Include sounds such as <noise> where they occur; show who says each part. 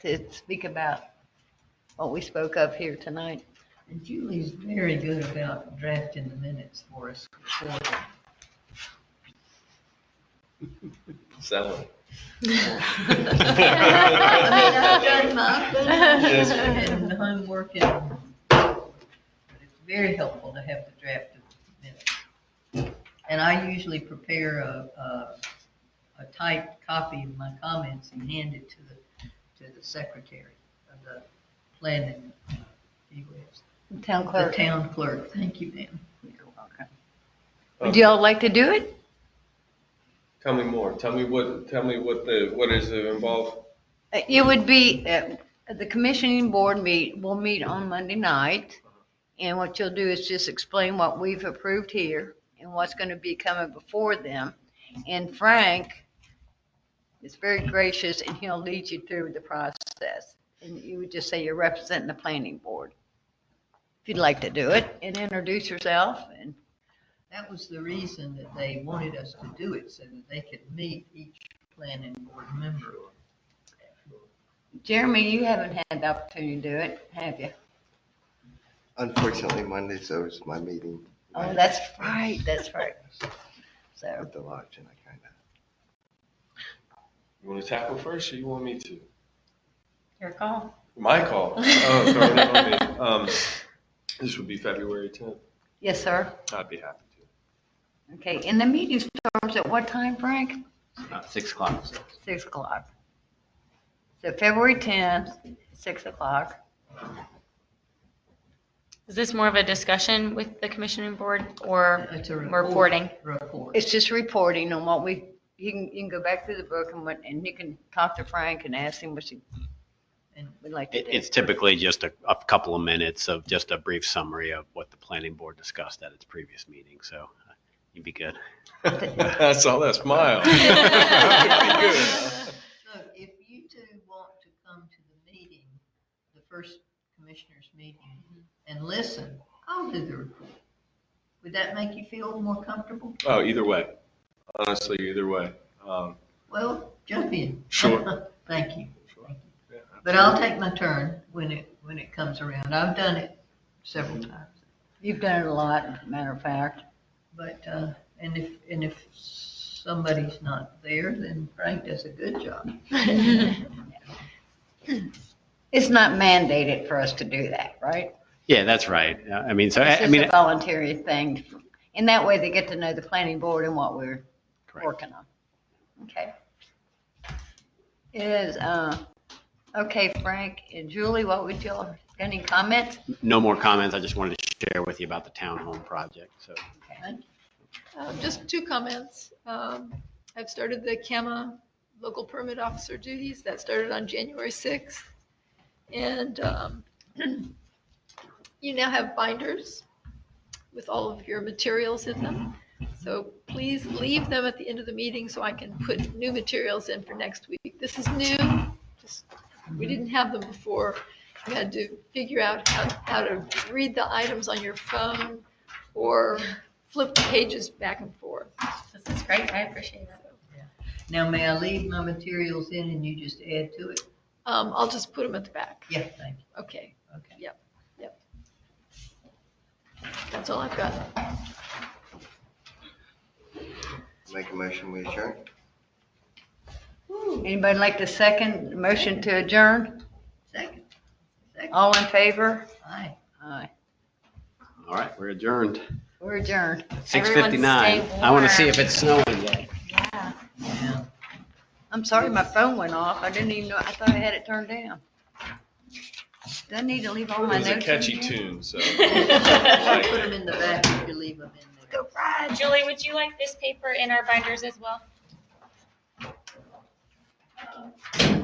Speaker 1: to speak about what we spoke of here tonight.
Speaker 2: And Julie's very good about drafting the minutes for us. before.
Speaker 3: Selling.
Speaker 2: I mean, I've done my
Speaker 3: Yes.
Speaker 2: thing and the homework and, but it's very helpful to have the draft of the minutes. And I usually prepare a, a, a typed copy of my comments and hand it to the, to the secretary of the planning. uh, anyways,
Speaker 1: Town
Speaker 2: The
Speaker 1: clerk.
Speaker 2: town clerk, thank you, ma'am.
Speaker 1: You're welcome. Would y'all like to do it?
Speaker 3: Tell me more. Tell me what, tell me what the, what is involved?
Speaker 1: Uh, It would be, uh, the commissioning board meet, will meet on Monday night. And what you'll do is just explain what we've approved here and what's going to be coming before them. And Frank is very gracious and he'll lead you through the process. And you would just say you're representing the planning board. If you'd like to do it and introduce yourself and
Speaker 2: That was the reason that they wanted us to do it, so that they could meet each planning board member.
Speaker 1: Jeremy, you haven't had the opportunity to do it, have you?
Speaker 4: Unfortunately, Mondays always my meeting.
Speaker 1: Oh, that's right, that's right. So.
Speaker 4: At the lodge and I kind of,
Speaker 3: You want to tackle first or you want me to?
Speaker 5: Your call.
Speaker 3: My call. Oh, <laughs> throw it on me. Um, this would be February tenth.
Speaker 1: Yes, sir.
Speaker 3: I'd be happy to.
Speaker 1: Okay, and the meeting starts at what time, Frank?
Speaker 6: Uh, Six o'clock.
Speaker 1: Six o'clock. So February tenth, six o'clock.
Speaker 5: Is this more of a discussion with the commissioning board or
Speaker 2: It's a report-
Speaker 5: reporting?
Speaker 2: Report.
Speaker 1: It's just reporting on what we, you can, you can go back through the book and what, and you can talk to Frank and ask him what you
Speaker 2: And
Speaker 1: would like to
Speaker 6: It-
Speaker 1: do.
Speaker 6: It's typically just a, a couple of minutes of just a brief summary of what the planning board discussed at its previous meeting, so uh, you'd be good.
Speaker 3: <laughs> I saw that smile.
Speaker 2: So if you two want to come to the meeting, the first commissioners meeting,
Speaker 1: Mm-hmm.
Speaker 2: and listen, I'll do the report. Would that make you feel more comfortable?
Speaker 3: Oh, either way. Honestly, either way. Um,
Speaker 2: Well, jump in.
Speaker 3: Sure.
Speaker 2: <laughs> Thank you.
Speaker 3: Sure. Yeah,
Speaker 2: But I'll take my turn when it, when it comes around. I've done it several
Speaker 3: Mm-hmm.
Speaker 2: times.
Speaker 1: You've done it a lot, matter of fact.
Speaker 2: But, uh, and if, and if somebody's not there, then Frank does a good job.
Speaker 1: It's not mandated for us to do that, right?
Speaker 6: Yeah, that's right. Uh, I mean, so, I I
Speaker 1: It's just a
Speaker 6: mean,
Speaker 1: voluntary thing. And that way they get to know the planning board and what we're
Speaker 6: Correct.
Speaker 1: working on. Okay. Is, uh, okay, Frank and Julie, what would y'all, any comments?
Speaker 6: no more comments. I just wanted to share with you about the townhome project, so.
Speaker 7: Uh, Just two comments. Um, I've started the CAMA local permit officer duties. That started on January 6th. And um, <clears throat> you now have binders with all of your materials in them. So please leave them at the end of the meeting so I can put new materials in for next week. This is new. Just- We didn't have them before. You had to figure out how how to read the items on your phone or flip the pages back and forth.
Speaker 5: This is great. I appreciate it.
Speaker 2: Now, may I leave my materials in and you just add to it?
Speaker 7: Um, I'll just put them at the back.
Speaker 2: Yeah, thank you.
Speaker 7: Okay,
Speaker 2: Okay.
Speaker 7: that's all I've got.
Speaker 4: make a motion, we adjourn.
Speaker 1: Anybody like the second motion to adjourn?
Speaker 2: Second. Second.
Speaker 1: All in favor?
Speaker 2: Aye.
Speaker 1: Aye.
Speaker 6: All right, we're adjourned.
Speaker 1: We're adjourned.
Speaker 6: Six fifty-nine. I want to see if it's snowing yet.
Speaker 5: Yeah.
Speaker 2: Yeah.
Speaker 1: I'm sorry, my phone went off. I didn't even know, I thought I had it turned down. Do I need to leave all
Speaker 3: It
Speaker 1: my
Speaker 3: was
Speaker 1: notes?
Speaker 3: a
Speaker 1: in
Speaker 3: catchy
Speaker 1: here?
Speaker 3: tune, so.
Speaker 1: <laughs>
Speaker 5: <laughs>
Speaker 2: I'll put them in the back if you leave them in there.
Speaker 5: Uh, Julie, would you like this paper in our binders as well?